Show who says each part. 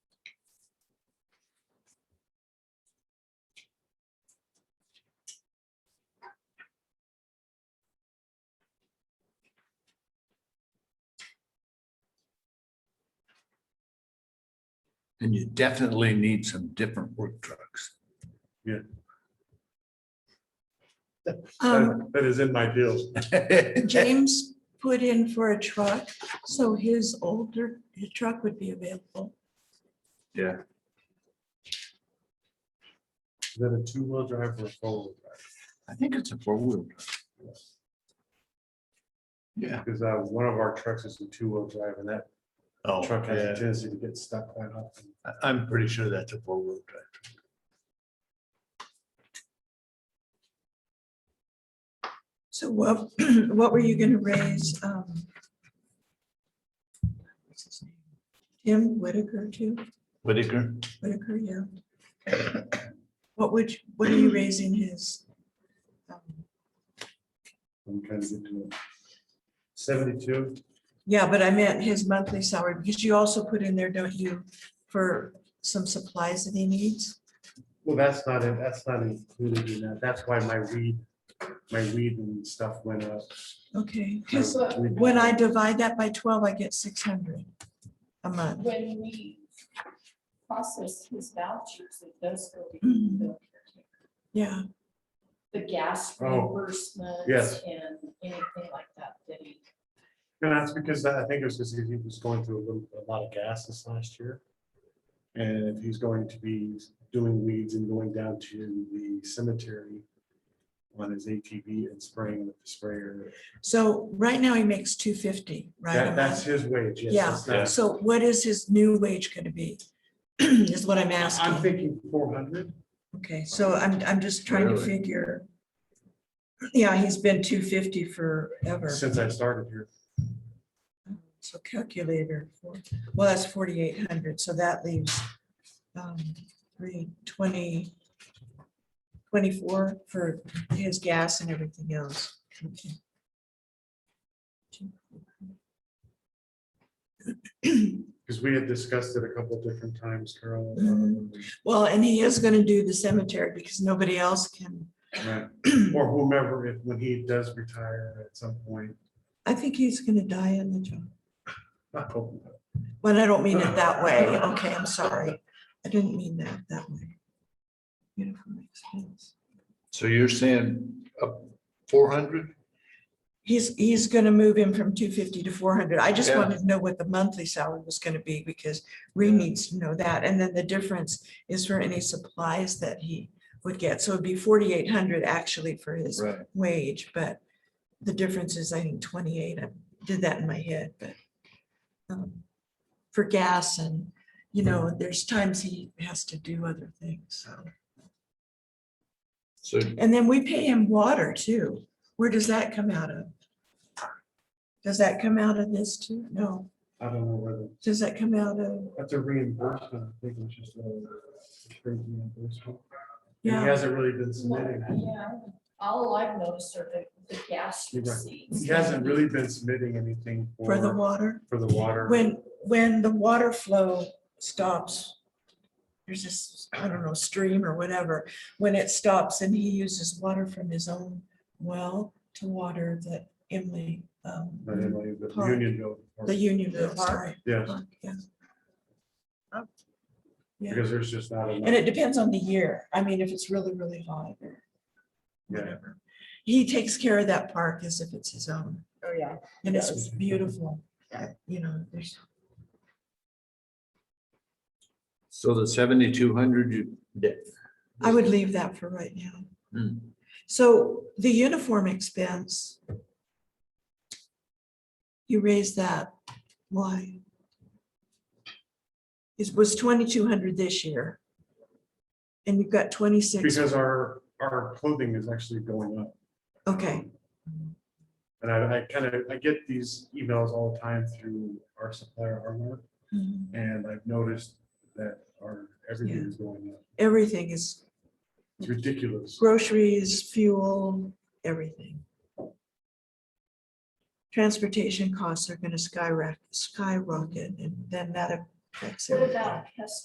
Speaker 1: And you definitely need some different work trucks.
Speaker 2: Um,
Speaker 3: That that is in my deal.
Speaker 2: James put in for a truck, so his older truck would be available.
Speaker 3: Is that a two-wheel drive or a four-wheel drive?
Speaker 1: I think it's a four-wheel. drive. Yeah.
Speaker 3: Because uh, one of our trucks is a two-wheel drive and that
Speaker 1: Oh,
Speaker 3: truck has a
Speaker 1: yeah.
Speaker 3: tendency to get stuck quite often.
Speaker 1: I- I'm pretty sure that's a four-wheel drive.
Speaker 2: So what, what were you gonna raise? um, what's his name? Tim Whitaker to,
Speaker 1: Whitaker,
Speaker 2: Whitaker, yeah. What would, you- what are you raising his? um,
Speaker 3: I'm trying to get to it. Seventy-two,
Speaker 2: Yeah, but I meant his monthly salary, because you also put in there, don't you, for some supplies that he needs?
Speaker 3: well, that's not, in- that's not included in that. That's why my weed, my weed and stuff went up.
Speaker 2: Okay,
Speaker 3: My
Speaker 2: 'cause
Speaker 3: weed-
Speaker 2: uh, when I divide that by twelve, I get six hundred a month.
Speaker 4: When we process his vouchers, it does go to the,
Speaker 2: Yeah,
Speaker 4: the gas
Speaker 3: Oh,
Speaker 4: reimbursement.
Speaker 3: yes.
Speaker 4: And anything like that, that he,
Speaker 3: And that's because I think it was because he was going through a little, a lot of gas this last year. And if he's going to be doing weeds and going down to the cemetery on his ATV and spraying with the sprayer,
Speaker 2: so right now he makes two fifty, right? a
Speaker 3: that, that's
Speaker 2: month?
Speaker 3: his wage. yes,
Speaker 2: Yeah.
Speaker 3: that's not-
Speaker 2: So what is his new wage gonna be? Is what I'm
Speaker 3: I'm
Speaker 2: asking.
Speaker 3: thinking four hundred.
Speaker 2: Okay, so I'm, I'm just trying to
Speaker 1: Really?
Speaker 2: figure. Yeah, he's been two fifty forever.
Speaker 3: Since I started here,
Speaker 2: So calculator, for well, that's forty-eight hundred, so that leaves um, three, twenty, twenty-four for his gas and everything else.
Speaker 3: because we had discussed it a couple of different times, Carol. um,
Speaker 2: Well, and he is gonna do the cemetery because nobody else can.
Speaker 3: right, um, Or whomever, if, when he does retire at some point.
Speaker 2: I think he's gonna die in the job.
Speaker 3: I hope not.
Speaker 2: Well, I don't mean it that way. Okay, I'm sorry. I didn't mean that that way. Uniform expense.
Speaker 1: so you're saying up four hundred?
Speaker 2: He's, he's gonna move him from two fifty to four hundred. I just
Speaker 1: Yeah.
Speaker 2: wanted to know what the monthly salary was gonna be because Ree needs to know that. And then the difference is for any supplies that he would get. So it'd be forty-eight hundred actually for his
Speaker 1: Right.
Speaker 2: wage, but the difference is, I think, twenty-eight. I did that in my head, but um, for gas and, you know, there's times he has to do other things, so.
Speaker 1: So
Speaker 2: And then we pay him water too. Where does that come out of? Does that come out of this too? No.
Speaker 3: I don't know whether.
Speaker 2: Does that come out of,
Speaker 3: That's a reimbursement, I think, which is. uh, straight reimbursement. And He
Speaker 2: yeah,
Speaker 3: hasn't really been submitting,
Speaker 4: yeah, all I've noticed are the, the gas
Speaker 3: You're right.
Speaker 4: receipts.
Speaker 3: he hasn't really been submitting anything
Speaker 2: for the
Speaker 3: for,
Speaker 2: water?
Speaker 3: for the water.
Speaker 2: When, when the water flow stops, there's this, I don't know, stream or whatever, when it stops and he uses water from his own well to water the Emily, um,
Speaker 3: But anyway, The
Speaker 2: Park.
Speaker 3: union bill.
Speaker 2: the Unionville, sorry.
Speaker 3: Yes,
Speaker 2: Park, yeah. Yeah.
Speaker 3: because there's just not
Speaker 2: And
Speaker 3: enough.
Speaker 2: it depends on the year. I mean, if it's really, really hot or
Speaker 3: Yeah.
Speaker 2: whatever. He takes care of that park as if it's his own
Speaker 4: Oh, yeah.
Speaker 2: and it's
Speaker 3: Yes.
Speaker 2: beautiful. uh, You know, there's,
Speaker 1: So the seventy-two hundred you did.
Speaker 2: I would leave that for right now.
Speaker 1: Hmm.
Speaker 2: So the uniform expense. You raised that. Why? It was twenty-two hundred this year. And you've got twenty-six.
Speaker 3: Because our, our clothing is actually going up.
Speaker 2: Okay,
Speaker 3: And I, I kind of, I get these emails all the time through our supplier, Armor,
Speaker 2: Mhm.
Speaker 3: and I've noticed that our, everything is going up.
Speaker 2: everything is
Speaker 3: It's ridiculous.
Speaker 2: groceries, fuel, everything. Transportation costs are gonna skyrocket, skyrocket, and then that affects
Speaker 4: What
Speaker 2: everything.
Speaker 4: about pest